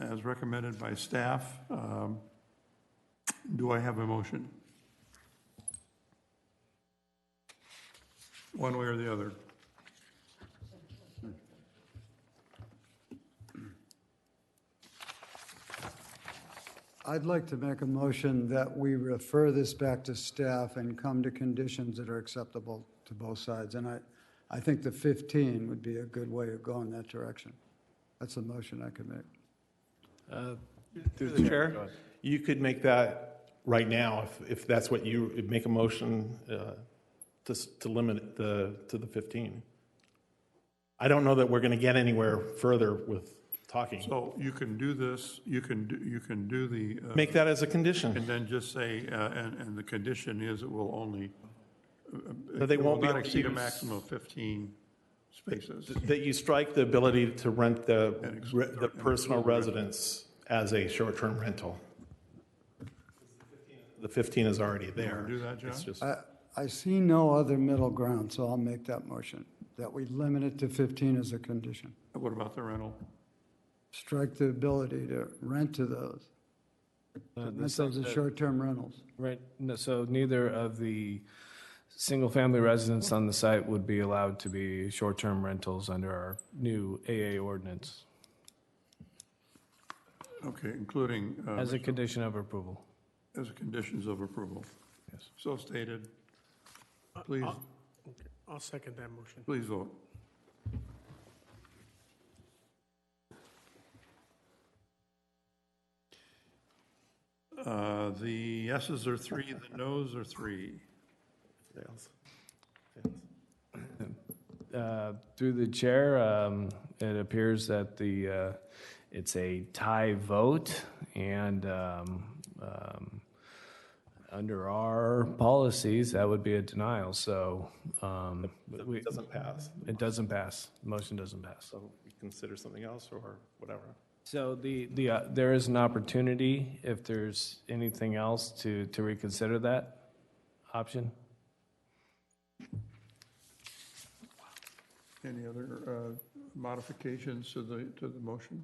as recommended by staff. Um, Do I have a motion? One way or the other? I'd like to make a motion that we refer this back to staff and come to conditions that are acceptable to both sides. And I, I think the 15 would be a good way of going that direction. That's the motion I could make. Through the chair, you could make that right now if, if that's what you, make a motion uh, to, s- to limit it the, to the 15. I don't know that we're going to get anywhere further with talking. So you can do this, you can, do you can do the. uh, Make that as a condition, And then just say, uh, and, and the condition is it will only. uh, that they it will won't be not able to exceed a use- maximum of 15 spaces. that you strike the ability to rent the, ex- re- the personal residence as a short-term rental. The 15 is already there. Do that, John? It's just- I, I see no other middle ground, so I'll make that motion, that we limit it to 15 as a condition. What about the rental? Strike the ability to rent to those. Uh, Rent the those sec- as uh, short-term rentals. Right, no, so neither of the single-family residents on the site would be allowed to be short-term rentals under our new AA ordinance Okay, including uh, as a condition of approval. as conditions of approval. Yes. So stated. Please, I'll second that motion. please vote. Uh, The yeses are three, the nos are three. Fails. Uh, Through the chair, um, it appears that the, uh, it's a tie vote, and um, um, under our policies, that would be a denial, so um, we- It doesn't pass. it doesn't pass, motion doesn't pass. So we consider something else or whatever. So the, the, uh, there is an opportunity, if there's anything else, to, to reconsider that option? Any other uh, modifications to the, to the motion?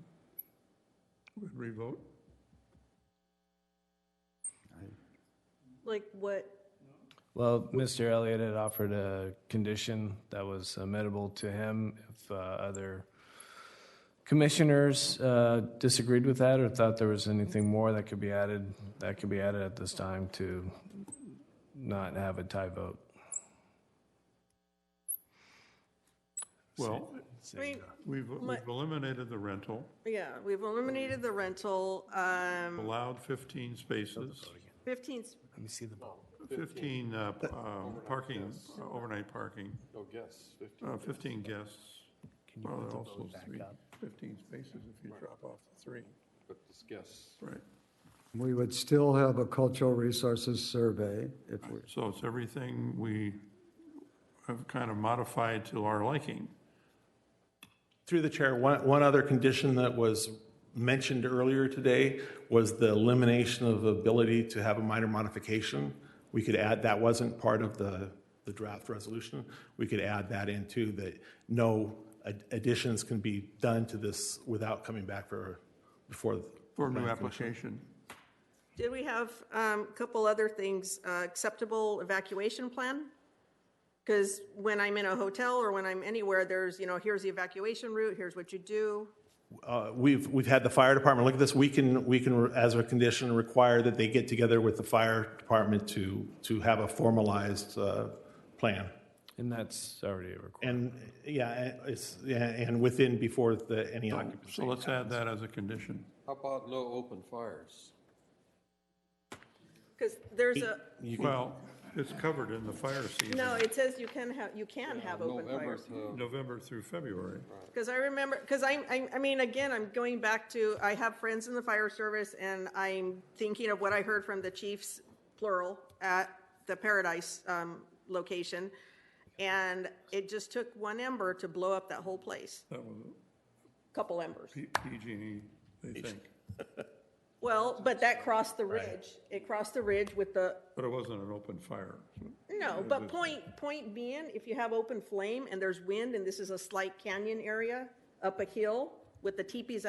Would revote? Like what, Well, Mr. Elliott had offered a condition that was amenable to him. If uh, other commissioners uh, disagreed with that or thought there was anything more that could be added, that could be added at this time to not have a tie vote. Well, I mean, we've, we've eliminated the rental, yeah, we've eliminated the rental, um, allowed 15 spaces, 15, s- 15 uh, um, parking, uh, overnight parking. No guests. 15 guests. Well, there also is three- 15 spaces if you drop off the three. But it's guests. We would still have a cultural resources survey if we, Right, so it's everything we have kind of modified to our liking. Through the chair, one, one other condition that was mentioned earlier today was the elimination of ability to have a minor modification. We could add, that wasn't part of the, the draft resolution. We could add that in too, that no ad- additions can be done to this without coming back for, before. For a new application. did we have um, a couple other things, uh, acceptable evacuation plan? Because when I'm in a hotel or when I'm anywhere, there's, you know, here's the evacuation route, here's what you do. Uh, We've, we've had the fire department look at this. We can, we can, as a condition, require that they get together with the fire department to, to have a formalized uh, plan. And that's already a requirement. And, yeah, and it's, yeah, and within, before the, any occupancy. So let's add that as a condition. How about no open fires? Because there's a, You can- Well, it's covered in the fire no, season, it says you can have, you can have open November fires. to November through February. Because I remember, because I, I, I mean, again, I'm going back to, I have friends in the fire service, and I'm thinking of what I heard from the chiefs, plural, at the Paradise, um, location. And it just took one ember to blow up that whole place, That was couple embers. P- PG&E, they think. Well, but that crossed the ridge. It crossed the ridge with the, But it wasn't an open fire. no, but point, point being, if you have open flame and there's wind, and this is a slight canyon area up a hill with the teepees